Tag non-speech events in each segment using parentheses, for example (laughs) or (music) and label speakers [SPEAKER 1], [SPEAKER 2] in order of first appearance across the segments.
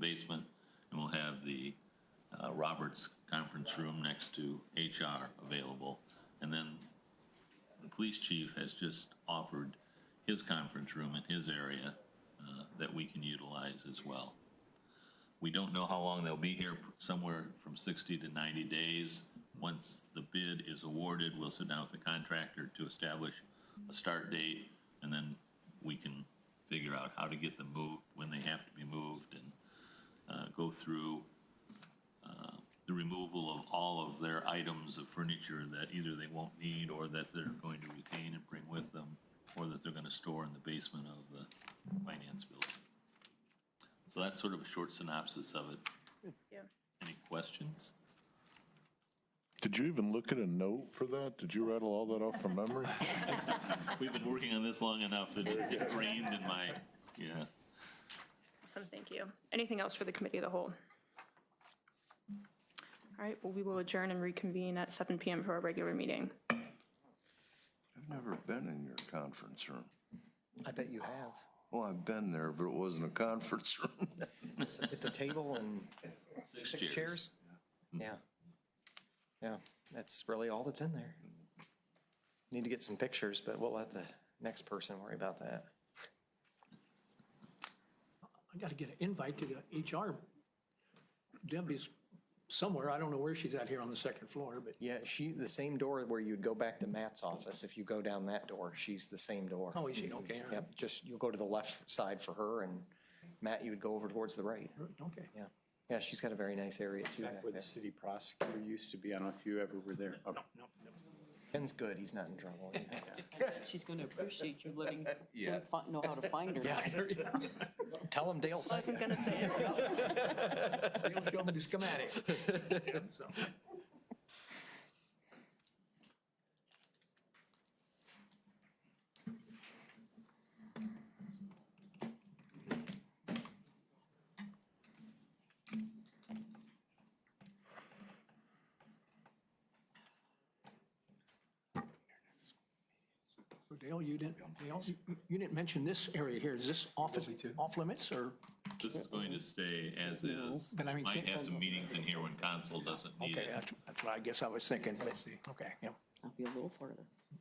[SPEAKER 1] basement, and we'll have the uh, Roberts Conference Room next to HR available. And then the police chief has just offered his conference room in his area uh, that we can utilize as well. We don't know how long they'll be here, somewhere from 60 to 90 days. Once the bid is awarded, we'll sit down with the contractor to establish a start date, and then we can figure out how to get them moved, when they have to be moved, and uh, go through uh, the removal of all of their items of furniture that either they won't need, or that they're going to retain and bring with them, or that they're going to store in the basement of the finance building. So that's sort of a short synopsis of it.
[SPEAKER 2] Yeah.
[SPEAKER 1] Any questions?
[SPEAKER 3] Did you even look at a note for that? Did you rattle all that off from memory?
[SPEAKER 1] We've been working on this long enough that it's ingrained in my, yeah.
[SPEAKER 2] Awesome, thank you. Anything else for the committee of the whole? All right, well, we will adjourn and reconvene at 7 PM for our regular meeting.
[SPEAKER 4] I've never been in your conference room.
[SPEAKER 5] I bet you have.
[SPEAKER 4] Well, I've been there, but it wasn't a conference room.
[SPEAKER 5] It's, it's a table and six chairs. Yeah. Yeah, that's really all that's in there. Need to get some pictures, but we'll let the next person worry about that.
[SPEAKER 6] I gotta get an invite to the HR. Debbie's somewhere, I don't know where she's at here on the second floor, but,
[SPEAKER 5] Yeah, she, the same door where you'd go back to Matt's office, if you go down that door, she's the same door.
[SPEAKER 6] oh, is she, okay, all right.
[SPEAKER 5] Yep, just, you'll go to the left side for her and Matt, you would go over towards the right.
[SPEAKER 6] okay.
[SPEAKER 5] Yeah. Yeah, she's got a very nice area too back
[SPEAKER 7] Back where the
[SPEAKER 5] there.
[SPEAKER 7] city prosecutor used to be, I don't know if you ever were there. Okay.
[SPEAKER 5] Ken's good, he's not in (laughs) trouble.
[SPEAKER 8] She's going to appreciate you letting her fi- know how to find her.
[SPEAKER 5] Tell him Dale
[SPEAKER 2] I wasn't
[SPEAKER 5] sent you.
[SPEAKER 2] gonna say it.
[SPEAKER 6] They don't show me the schematic. So, So Dale, you didn't, Dale, you you didn't mention this area here. Is this off, off limits or?
[SPEAKER 1] This is going to stay as is.
[SPEAKER 6] But I mean,
[SPEAKER 1] Might
[SPEAKER 6] can't-
[SPEAKER 1] have some meetings in here when council doesn't need
[SPEAKER 6] Okay,
[SPEAKER 1] it.
[SPEAKER 6] that's, that's what I guess I was thinking. Let's see. Okay, yeah.
[SPEAKER 8] I'll be a little farther.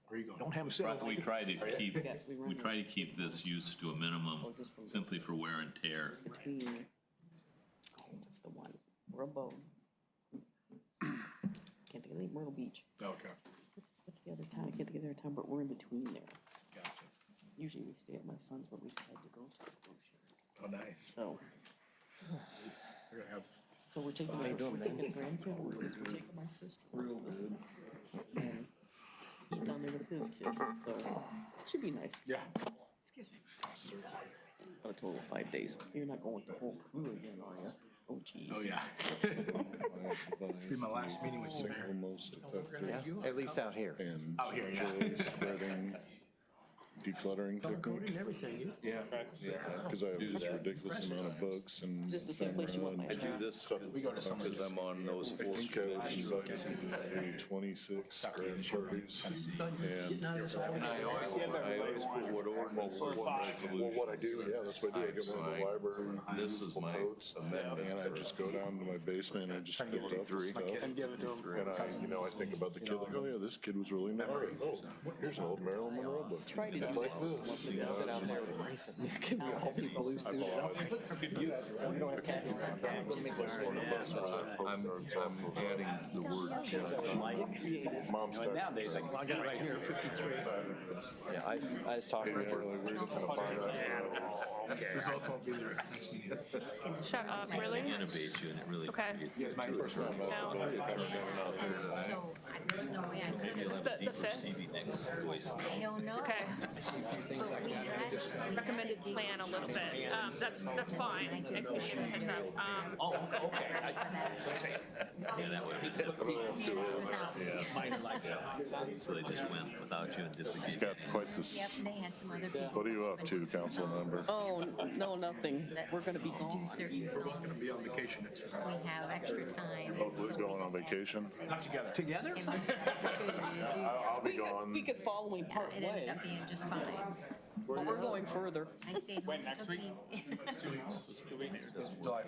[SPEAKER 6] Where you going? Don't have a cell
[SPEAKER 1] We
[SPEAKER 6] phone.
[SPEAKER 1] try
[SPEAKER 7] Oh,
[SPEAKER 1] to keep,
[SPEAKER 8] Yeah, we run Oh,
[SPEAKER 1] we try to keep this use to a minimum
[SPEAKER 8] just from-
[SPEAKER 1] simply for wear and tear.
[SPEAKER 8] Between, oh, what's the one? Rabow. Can't think of the, Myrtle Beach.
[SPEAKER 7] Okay,
[SPEAKER 8] What's- What's the other town? I can't think of the other town, but we're in between there.
[SPEAKER 7] gotcha.
[SPEAKER 8] Usually we stay at my son's, but we decided to go to the cruise ship.
[SPEAKER 7] Oh, nice.
[SPEAKER 8] So,
[SPEAKER 7] We're gonna have
[SPEAKER 8] so we're taking, my- we're taking a grandkid with us, we're taking my sister with us. And He's down there with his kids, so it should be nice.
[SPEAKER 7] Yeah.
[SPEAKER 8] Excuse me. A total of Oh, five days. You're not going with the whole crew again, are you? Oh, geez.
[SPEAKER 7] Oh, yeah. (laughs) Be my last meeting with you, Mayor.
[SPEAKER 3] Most effective
[SPEAKER 5] At least out here.
[SPEAKER 3] and
[SPEAKER 7] Out here, yeah.
[SPEAKER 3] joy
[SPEAKER 7] (laughs)
[SPEAKER 3] spreading, decluttering
[SPEAKER 6] Color coded and
[SPEAKER 3] technique.
[SPEAKER 6] everything. you-
[SPEAKER 3] Because I have this ridiculous amount of books and.
[SPEAKER 8] Just the same place you want my
[SPEAKER 3] I do
[SPEAKER 8] car.
[SPEAKER 4] This,
[SPEAKER 7] We go to some of
[SPEAKER 4] because
[SPEAKER 7] those.
[SPEAKER 4] I'm on those
[SPEAKER 3] I
[SPEAKER 4] four
[SPEAKER 3] think I was
[SPEAKER 4] committees.
[SPEAKER 3] invited to maybe twenty-six grand parties. And
[SPEAKER 6] No, it's-
[SPEAKER 4] I always, I always put what ordinance, what
[SPEAKER 3] Well,
[SPEAKER 4] resolution.
[SPEAKER 3] what I do, yeah, that's what I do. I go to the library. and
[SPEAKER 4] This is my
[SPEAKER 3] notes, And I just go down to my basement and I just fill it up with
[SPEAKER 7] And
[SPEAKER 3] stuff.
[SPEAKER 7] give it to them.
[SPEAKER 3] And I, you know, I think about the kid, like, oh yeah, this kid was really nerdy. Oh, here's an old Marilyn Monroe book.
[SPEAKER 8] Try to do
[SPEAKER 3] Like
[SPEAKER 8] that.
[SPEAKER 3] this. you
[SPEAKER 5] Get
[SPEAKER 3] know.
[SPEAKER 5] out there racing. Give me a whole heap of loose suit.
[SPEAKER 4] Uh, I'm, I'm adding the word
[SPEAKER 3] Mom's texting.
[SPEAKER 7] Nowadays, like, I got it right here, fifty-three.
[SPEAKER 5] Yeah, I, was- I was talking to
[SPEAKER 3] Maybe
[SPEAKER 5] Richard.
[SPEAKER 3] early, we're just gonna find out.
[SPEAKER 7] We both won't be there at the next meeting.
[SPEAKER 2] Shut up, really?
[SPEAKER 1] Innovate you and it really.
[SPEAKER 2] Okay.
[SPEAKER 1] creates-
[SPEAKER 7] Yes, my personal.
[SPEAKER 2] No,
[SPEAKER 9] So, I- there's no way I could,
[SPEAKER 2] it's the, the fifth,
[SPEAKER 1] Maybe next voice.
[SPEAKER 9] I don't know.
[SPEAKER 2] okay.
[SPEAKER 9] But we had-
[SPEAKER 2] Recommended plan a little bit. Um, that's, that's fine. I can give you a heads up. Um,
[SPEAKER 1] Oh, okay. Yeah, that would have been difficult.
[SPEAKER 9] Mine like that.
[SPEAKER 1] So they just went without you and did the
[SPEAKER 3] He's got quite
[SPEAKER 9] Yep,
[SPEAKER 3] this,
[SPEAKER 9] they had some other people.
[SPEAKER 3] what are you up to, council member?
[SPEAKER 8] Oh, no, nothing. We're going to be
[SPEAKER 9] Do
[SPEAKER 8] gone.
[SPEAKER 9] certain songs. We're both gonna be on vacation next week. We have extra time.
[SPEAKER 3] Oh, we're going on vacation?
[SPEAKER 7] Not together.
[SPEAKER 6] Together?
[SPEAKER 9] And we had the opportunity to
[SPEAKER 3] (laughs)
[SPEAKER 9] do
[SPEAKER 3] I'll
[SPEAKER 9] that.
[SPEAKER 3] be
[SPEAKER 8] We
[SPEAKER 3] gone.
[SPEAKER 8] could follow him part
[SPEAKER 9] It ended
[SPEAKER 8] way,
[SPEAKER 9] up being just fine.
[SPEAKER 8] but we're going further.
[SPEAKER 9] (laughs) I stayed home, took it easy.
[SPEAKER 7] July